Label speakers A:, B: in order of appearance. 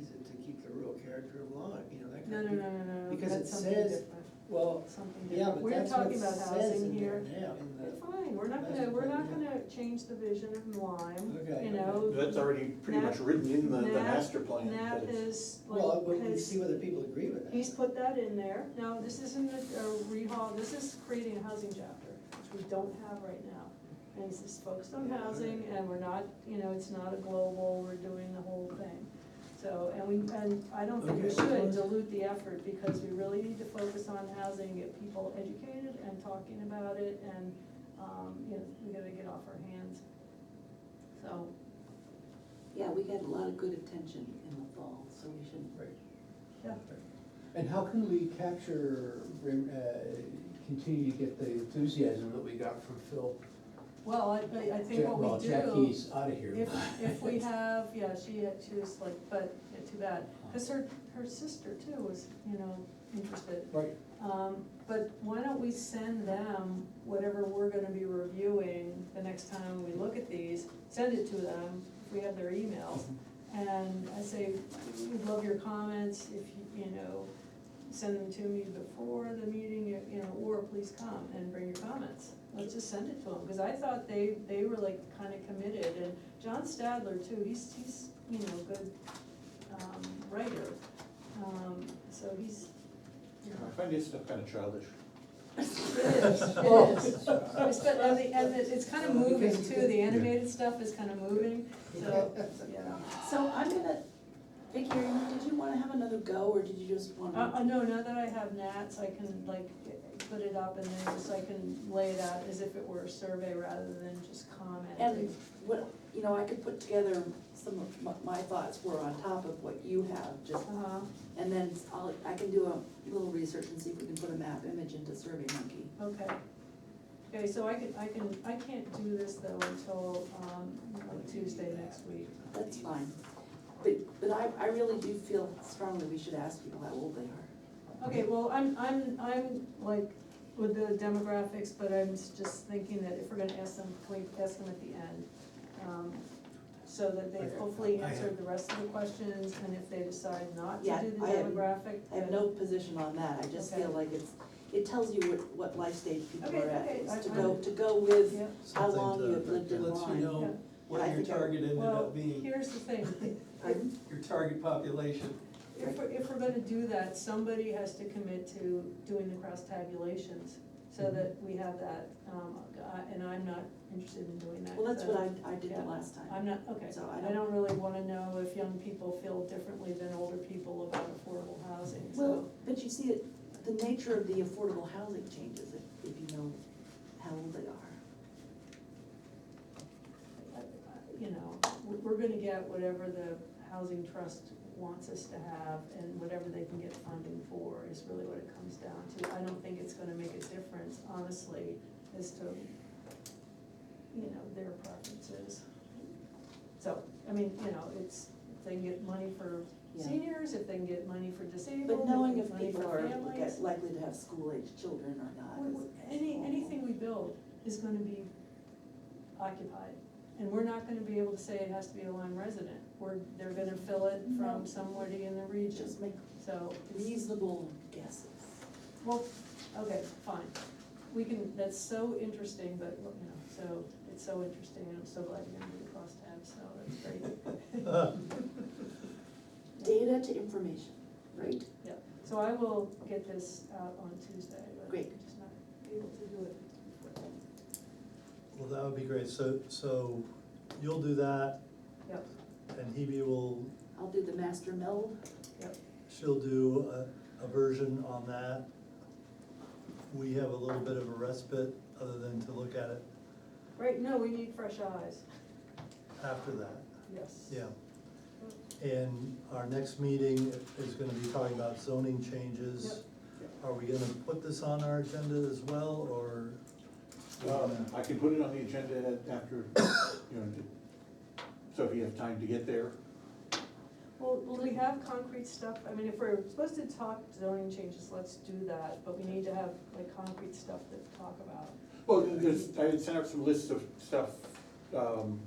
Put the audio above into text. A: is it to keep the rural character alive, you know, that
B: No,
A: kind of.
B: no, no, no, no,
A: Because it
B: that's something
A: says-
B: different,
A: Well,
B: something
A: yeah,
B: different.
A: but that's what it
B: We're talking about
A: says
B: housing
A: in there
B: here.
A: now, in the.
B: It's fine, we're not gonna,
A: master
B: we're not
A: plan, yeah.
B: gonna change the vision of Lime,
A: Okay,
B: you
A: okay.
B: know?
C: That's already pretty much written in the, the
B: Nap-
C: master plan.
B: Nap
C: but it's-
B: is,
A: Well,
B: like,
A: but we see
B: has,
A: whether people agree with that.
B: he's put that in there. Now, this isn't a a rehaul, this is creating a housing chapter, which we don't have right now. And it's just focused on
A: Yeah, all
B: housing,
A: right.
B: and we're not, you know, it's not a global, we're doing the whole thing. So, and we, and I don't think we
A: Okay, well,
B: should
A: let's-
B: dilute the effort, because we really need to focus on housing, get people educated and talking about it, and, um, you know, we gotta get off our hands. So,
D: Yeah, we got a lot of good attention in the fall, so we should.
A: Right.
B: yeah.
E: And how can we capture, rem- uh, continue to get the enthusiasm that we got from Phil?
B: Well, I, but I think
E: Jack-
B: what
E: Well,
B: we do,
E: Jackie's out of here.
B: if, if we have, yeah, she, she was like, but, yeah, too bad, cause her, her sister too was, you know, interested.
E: Right,
B: Um, but why don't we send them whatever we're gonna be reviewing the next time we look at these, send it to them, if we have their emails.
E: Mm-hmm.
B: And I say, we love your comments, if you, you know, send them to me before the meeting, you- you know, or please come and bring your comments. Let's just send it to them, because I thought they, they were like kinda committed, and John Stadler too, he's, he's, you know, good, um, writer. Um, so he's, you know.
C: I find this stuff kind of childish.
B: It is,
A: Oh.
B: it is. It's, but, and the, and it's it's kind of moving too, the animated stuff is kind of moving, so, yeah.
D: So I'm gonna, Vicky, are you- did you wanna have another go, or did you just
B: Uh,
D: wanna?
B: uh, no, now that I have Nats, I can like put it up and then just, I can lay it out as if it were a survey rather than just
D: And
B: comment.
D: what, you know, I could put together some of my, my thoughts were on top of what you have, just,
B: Uh-huh,
D: and then I'll, I can do a little research and see if we can put a map image into Survey Monkey.
B: okay. Okay, so I can, I can, I can't do this though until, um, like Tuesday next week.
D: That's fine. But, but I, I really do feel strongly we should ask people how old they are.
B: Okay, well, I'm, I'm, I'm like with the demographics, but I'm s- just thinking that if we're gonna ask them, can we ask them at the end? um, So that they
E: Okay.
B: hopefully
E: I have-
B: answered the rest of the questions, and if they decide not to
D: Yeah,
B: do the
D: I have-
B: demographic.
D: I have
B: then-
D: no position on that, I just
B: Okay.
D: feel like it's, it tells you what, what life stage people
B: Okay,
D: are at.
B: okay,
D: It's
B: I-
D: To
B: I-
D: go, to go with
B: Yeah,
D: how long you have lived in
F: Lets you
D: line.
F: know
D: I
F: what your
D: think I-
F: target ended
B: well,
F: up being,
B: here's the thing,
D: Pardon?
F: your target population.
B: if, we're- if we're gonna do that, somebody has to commit to doing the cross tabulations, so
F: Mm-hmm.
B: that we have that, um, I- and I'm not interested in doing that.
D: Well, that's
B: so-
D: what I, I did the
B: Yeah.
D: last time.
B: I'm not, okay,
D: So I
B: I don't really wanna know if young people feel differently than older people about affordable housing, so.
D: Well, but you see, it- the nature of the affordable housing changes if, if you know how old they are.
B: I- I- You know, we're, we're gonna get whatever the housing trust wants us to have and whatever they can get funding for is really what it comes down to. I don't think it's gonna make a difference, honestly, as to, you know, their preferences. So, I mean, you know, it's, if they can get money for
D: Yeah.
B: seniors, if they can get money for disabled,
D: But knowing
B: if
D: if
B: they can get
D: people
B: money for
D: are
B: families.
D: get- likely to have school-aged children or not.
B: We-
D: is-
B: we-
D: is
B: Any,
D: awful.
B: anything we build is gonna be occupied, and we're not gonna be able to say it has to be a Lyme resident, we're, they're gonna fill it
D: No.
B: from somebody in the region,
D: Just make
B: so. it's-
D: reasonable guesses.
B: Well, okay, fine, we can, that's so interesting, but, you know, so, it's so interesting, and I'm so glad you're gonna do the crosstabs, so that's great.
D: Data to information, right?
B: Yeah, so I will get this out on Tuesday, but I'm
D: Great.
B: just not able to do it before then.
F: Well, that would be great, so, so you'll do that,
B: Yep,
F: and Hebe will,
D: I'll do the master meld.
B: yep,
F: she'll do a, a version on that. We have a little bit of a respite, other than to look at it
B: right, no, we need fresh eyes.
F: after that,
B: Yes.
F: yeah. And our next meeting is gonna be talking about zoning changes. Are we gonna put this on our agenda as well, or?
C: Um, I can put it on the agenda at- after, you know, so if you have time to get there.
B: Well, will we have concrete stuff, I mean, if we're supposed to talk zoning changes, let's do that, but we need to have like concrete stuff to talk about.
C: Well, there's, I had sent out some lists of stuff, um,